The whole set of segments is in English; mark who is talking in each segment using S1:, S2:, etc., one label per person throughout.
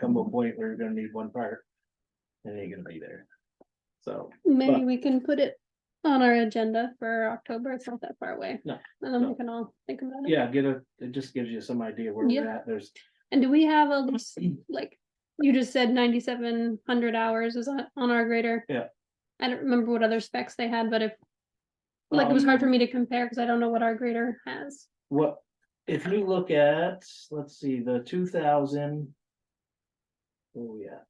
S1: come a point where you're gonna need one part. And it ain't gonna be there. So,
S2: Maybe
S1: But-
S2: we can put it on our agenda for October. It's not that far away.
S1: No,
S2: And then
S1: no.
S2: we can all think about it.
S1: yeah, get a, it just gives you some idea where we're
S2: Yeah.
S1: at, there's,
S2: And do we have a, list, like, you just said ninety-seven hundred hours is on, on our grader?
S1: Yeah.
S2: I don't remember what other specs they had, but if, like, it was hard for me to compare because I don't know what our grader has.
S1: um, what, if you look at, let's see, the two thousand. Oh, yeah,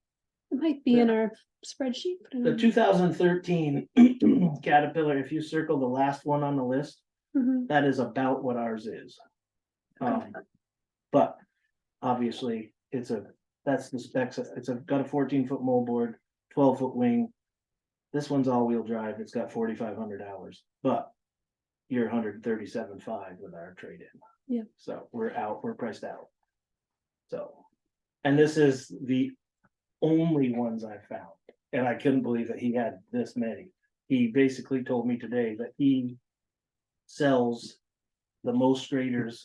S2: It might be in our spreadsheet. but I
S1: the
S2: don't
S1: two thousand thirteen Caterpillar, if you circle the last one on the list,
S2: know. Mhm.
S1: that is about what ours is. Um, but obviously, it's a, that's the specs, it's a, got a fourteen foot moldboard, twelve foot wing. This one's all wheel drive, it's got forty five hundred hours, but you're hundred and thirty seven five with our trade in.
S2: Yeah.
S1: So we're out, we're priced out. So, and this is the only ones I found, and I couldn't believe that he had this many. He basically told me today that he sells the most graders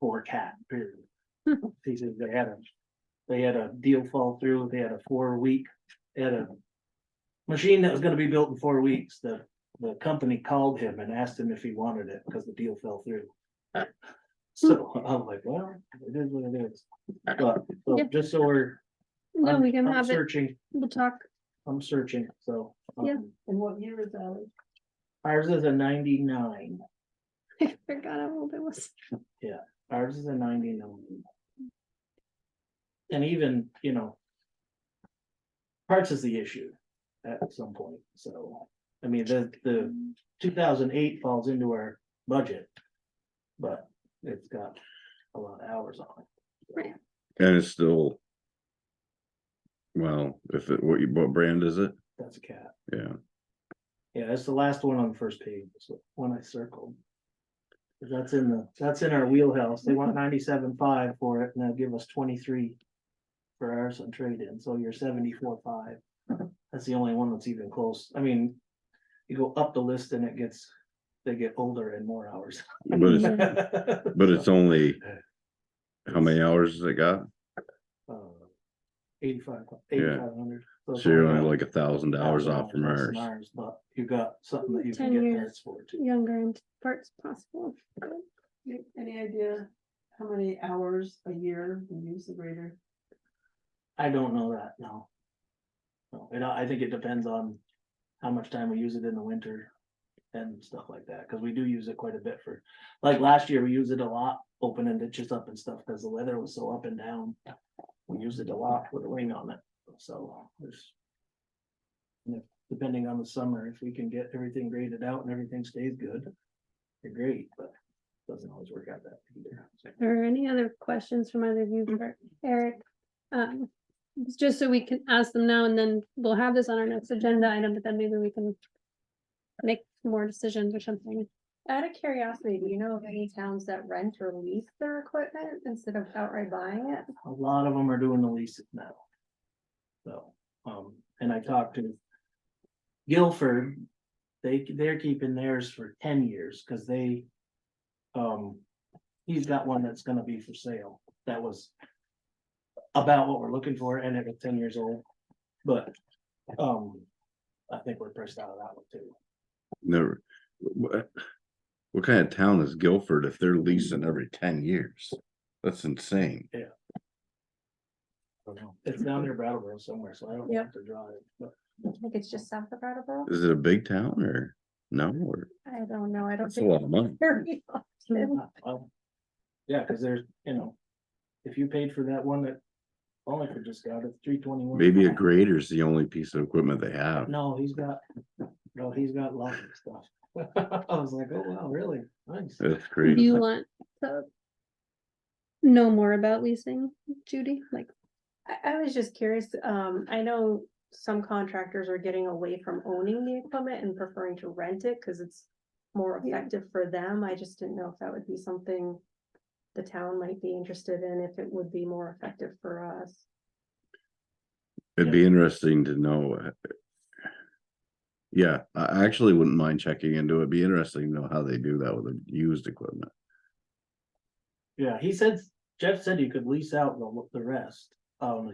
S1: for cat period.
S2: Hmm.
S1: He said they had a, they had a deal fall through, they had a four week, they had a. Machine that was gonna be built in four weeks, the, the company called him and asked him if he wanted it because the deal fell through. So I'm like, well, it is what it is, but, so
S2: Yeah.
S1: just so we're.
S2: No,
S1: I'm-
S2: we can
S1: I'm
S2: have it.
S1: Searching,
S2: We'll talk.
S1: I'm searching, so.
S2: Yeah.
S1: um,
S3: And what year is that?
S1: Ours is a ninety-nine,
S2: I forgot how old it was.
S1: ours is a ninety-nine. And even, you know. Parts is the issue at some point, so, I mean, the, the two thousand eight falls into our budget. But it's got a lot of hours on it.
S4: And it's still. Well, if it, what, you- what brand is it?
S1: That's a cat,
S4: Yeah,
S1: yeah, that's the last one on the first page, it's the one I circled. 'Cause That's in the, that's in our wheelhouse, they want ninety-seven five for it, and they'll give us twenty-three. For ours on trade-in, so you're seventy-four five, that's the only one that's even close, I mean. You go up the list and it gets, they get older and more hours.
S4: but it's, but it's only.
S1: Yeah.
S4: How many hours has it got?
S1: uh, Eighty-five, eighty-five hundred.
S4: So you're only like a thousand hours off from ours.
S1: But you got something that you can
S2: Ten
S1: get
S2: years.
S1: parts for too.
S2: Younger and parts possible.
S3: Any idea how many hours a year we use the grader?
S1: I don't know that, no. No, and I I think it depends on how much time we use it in the winter and stuff like that, because we do use it quite a bit for, like last year, we used it a lot, opening ditches up and stuff, because the weather was so up and down. We used it a lot with a wing on it, so there's. you know, Depending on the summer, if we can get everything graded out and everything stays good, they're great, but doesn't always work out that either. so.
S2: Or any other questions from either of you for Eric? Um, it's just so we can ask them now and then we'll have this on our next agenda item, but then maybe we can make more decisions or something.
S5: Out of curiosity, do you know of any towns that rent or lease their equipment instead of outright buying it?
S1: a lot of them are doing the leases now. So, um, and I talked to Guilford, they, they're keeping theirs for ten years, cause they, um, he's got one that's gonna be for sale, that was about what we're looking for, and it was ten years old, but, um, I think we're pressed out of that one too.
S4: Never. What, what kind of town is Guilford if they're leasing every ten years? That's insane.
S1: I don't know. It's down near Brattleboro somewhere, so I don't have to draw it, but
S5: I think it's just south of Brattleboro.
S4: Is it a big town or no? Or
S5: I don't know. I don't
S4: that's a
S5: think.
S4: lot of money.
S5: very often.
S1: Uh, well, Yeah, cause there's, you know, if you paid for that one that Wallingford just got, it's three twenty-one.
S4: Maybe a grader's the only piece of equipment they have.
S1: No, he's got, no, he's got lots of stuff. I was like, oh wow, really? Nice.
S4: That's
S2: Do
S4: crazy.
S2: you want to know more about leasing, Judy? Like,
S5: I, I was just curious. Um, I know some contractors are getting away from owning the equipment and preferring to rent it because it's more
S2: Yeah.
S5: effective for them. I just didn't know if that would be something the town might be interested in, if it would be more effective for us.
S4: It'd be interesting to know. uh, Yeah, I I actually wouldn't mind checking into it. It'd Be interesting to know how they do that with the used equipment.
S1: Yeah, he said, Jeff said you could lease out the, the rest. Um,